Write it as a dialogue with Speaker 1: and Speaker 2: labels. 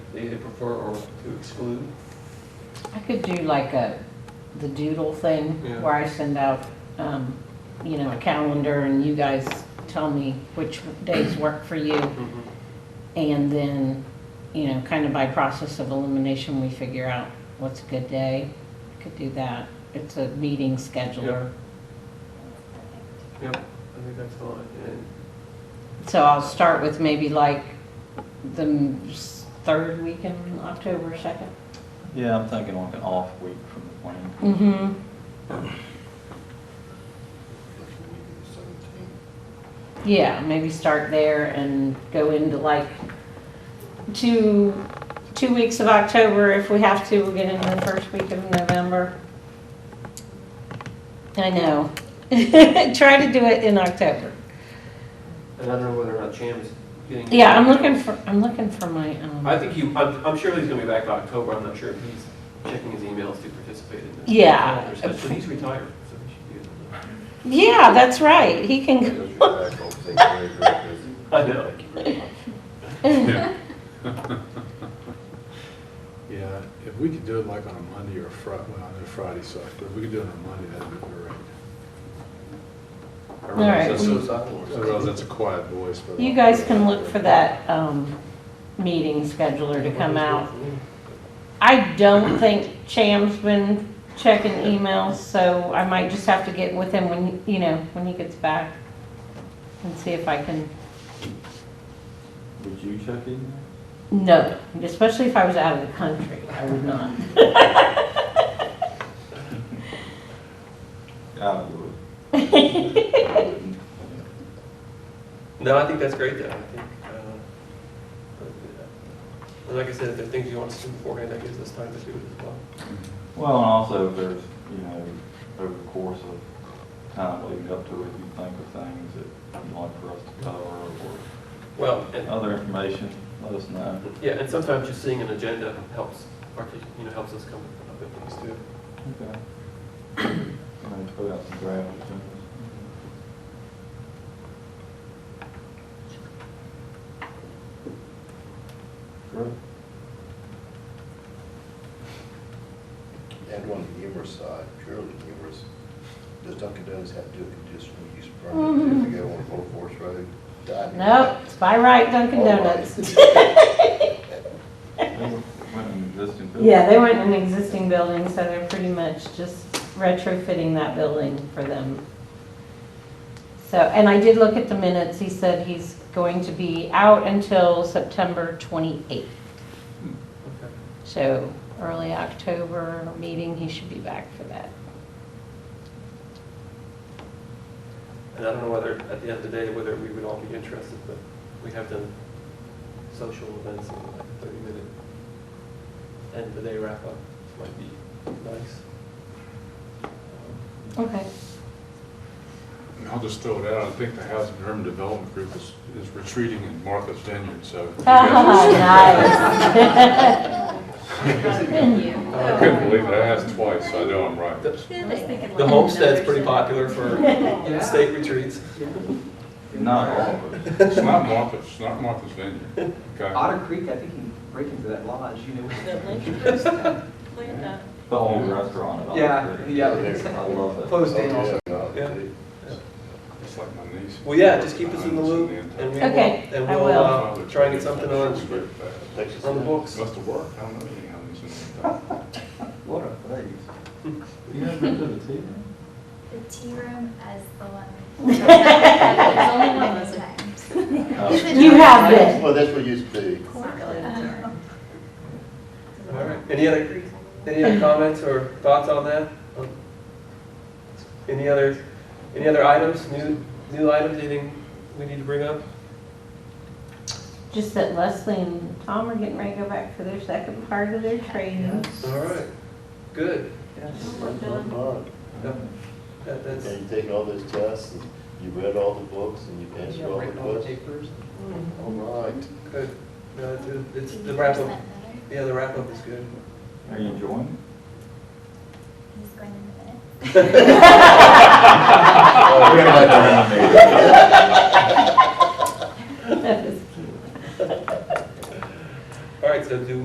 Speaker 1: they either prefer or to exclude.
Speaker 2: I could do like a, the doodle thing,
Speaker 1: Yeah.
Speaker 2: where I send out, um, you know, a calendar and you guys tell me which days work for you.
Speaker 1: Mm-hmm.
Speaker 2: And then, you know, kind of by process of elimination, we figure out what's a good day. Could do that. It's a meeting scheduler.
Speaker 1: Yep, I think that's all, I- and
Speaker 2: So I'll start with maybe like the m- s- third weekend, October 2nd.
Speaker 3: Yeah, I'm thinking like an off week from the plan.
Speaker 2: Mm-hmm.
Speaker 4: Election week of the seventeenth.
Speaker 2: Yeah, maybe start there and go into like two, two weeks of October. If we have to, we'll get into the first week of November. I know. Try to do it in October.
Speaker 1: and I don't know whether or not Cham is getting.
Speaker 2: Yeah, I'm looking for, I'm looking for my,
Speaker 1: I
Speaker 2: um,
Speaker 1: think he, I'm, I'm sure he's gonna be back by October, I'm not sure if he's checking his emails to participate in this.
Speaker 2: Yeah.
Speaker 1: calendar stuff, But he's retired, so he should be able to.
Speaker 2: yeah, that's right. He can go.
Speaker 4: Because you're back on state very, very busy.
Speaker 1: I know.
Speaker 4: Thank you very much.
Speaker 5: Yeah. Yeah, if we could do it like on a Monday or a Fri, well, I know Friday sucks, but if we could do it on a Monday, that'd be great.
Speaker 1: I realize
Speaker 2: right.
Speaker 1: that's suicidal or something.
Speaker 5: Otherwise, Oh, that's a quiet voice, but.
Speaker 2: You guys can look for that, um, meeting scheduler to come out. I don't think Cham's been checking emails, so I might just have to get with him when, you know, when he gets back and see if I can,
Speaker 3: Would you check in?
Speaker 2: no, especially if I was out of the country, I would not.
Speaker 3: I would.
Speaker 1: No, I think that's great though, I think, uh, and like I said, if there are things you want us to do beforehand, that gives us time to do it as well.
Speaker 3: Well, and also if there's, you know, over the course of time leading up to it, you think of things that you'd like for us to cover or
Speaker 1: Well, and
Speaker 3: other information, let us know.
Speaker 1: Yeah, and sometimes just seeing an agenda helps, partic- you know, helps us come up with things too.
Speaker 3: Okay. I'm gonna put out some draft agendas. Sure.
Speaker 4: And on the humorous side, purely humorous, does Dunkin' Donuts have to do a conditional use
Speaker 2: Mhm.
Speaker 4: permit if you go on Old Forest Road? Dining.
Speaker 2: Nope, it's by right Dunkin'
Speaker 4: All
Speaker 5: Oh,
Speaker 4: right.
Speaker 2: Donuts.
Speaker 3: They went in existing building.
Speaker 2: Yeah, they went in an existing building, so they're pretty much just retrofitting that building for them. So, and I did look at the minutes, he said he's going to be out until September 28th.
Speaker 1: Okay.
Speaker 2: So early October meeting, he should be back for that.
Speaker 1: And I don't know whether, at the end of the day, whether we would all be interested, but we have done social events in like a thirty-minute end of the day wrap-up, might be nice.
Speaker 2: Okay.
Speaker 5: And I'll just throw it out, I think the Housing and Urban Development Group is, is retreating in Martha's Vineyard, so. if you
Speaker 2: nice.
Speaker 5: guys- I couldn't believe it, I asked twice, so I know I'm right.
Speaker 1: The homestead's pretty popular for state retreats.
Speaker 3: Not all of it.
Speaker 5: It's not Martha's, it's not Martha's Vineyard, okay?
Speaker 6: Otter Creek, I think you break into that lodge, you know.
Speaker 3: The whole restaurant. at all.
Speaker 6: Yeah, yeah.
Speaker 3: I love it.
Speaker 6: Closed in also.
Speaker 4: Oh,
Speaker 1: Yeah.
Speaker 4: dude.
Speaker 5: It's like my niece.
Speaker 1: Well, yeah, just keep us in the loop
Speaker 5: Must
Speaker 1: and we will,
Speaker 2: Okay,
Speaker 1: and
Speaker 2: I
Speaker 1: we'll,
Speaker 2: will.
Speaker 1: uh, try and get something on,
Speaker 4: Texas.
Speaker 1: on the books.
Speaker 5: have worked, I don't know any Housing and Urban.
Speaker 3: What a face. You haven't been to the tea room?
Speaker 7: The tea room as the one. It's only one of those times.
Speaker 3: Oh,
Speaker 2: You have been.
Speaker 4: Well, that's what it used to be.
Speaker 7: Um,
Speaker 1: All right, any other, any other comments or thoughts on that? Um, Any other, any other items, new, new items, anything we need to bring up?
Speaker 2: Just that Leslie and Tom are getting ready to go back for their second part of their training.
Speaker 1: All right, good.
Speaker 3: yeah.
Speaker 1: That, that's,
Speaker 4: And you take all those tests, and you read all the books, and you answered all the questions. All right.
Speaker 1: good. No, it's, it's the wrap up, yeah, the wrap up is good.
Speaker 3: Are you enjoying it?
Speaker 7: He's going in a minute.
Speaker 2: That is cute.
Speaker 1: All right, so do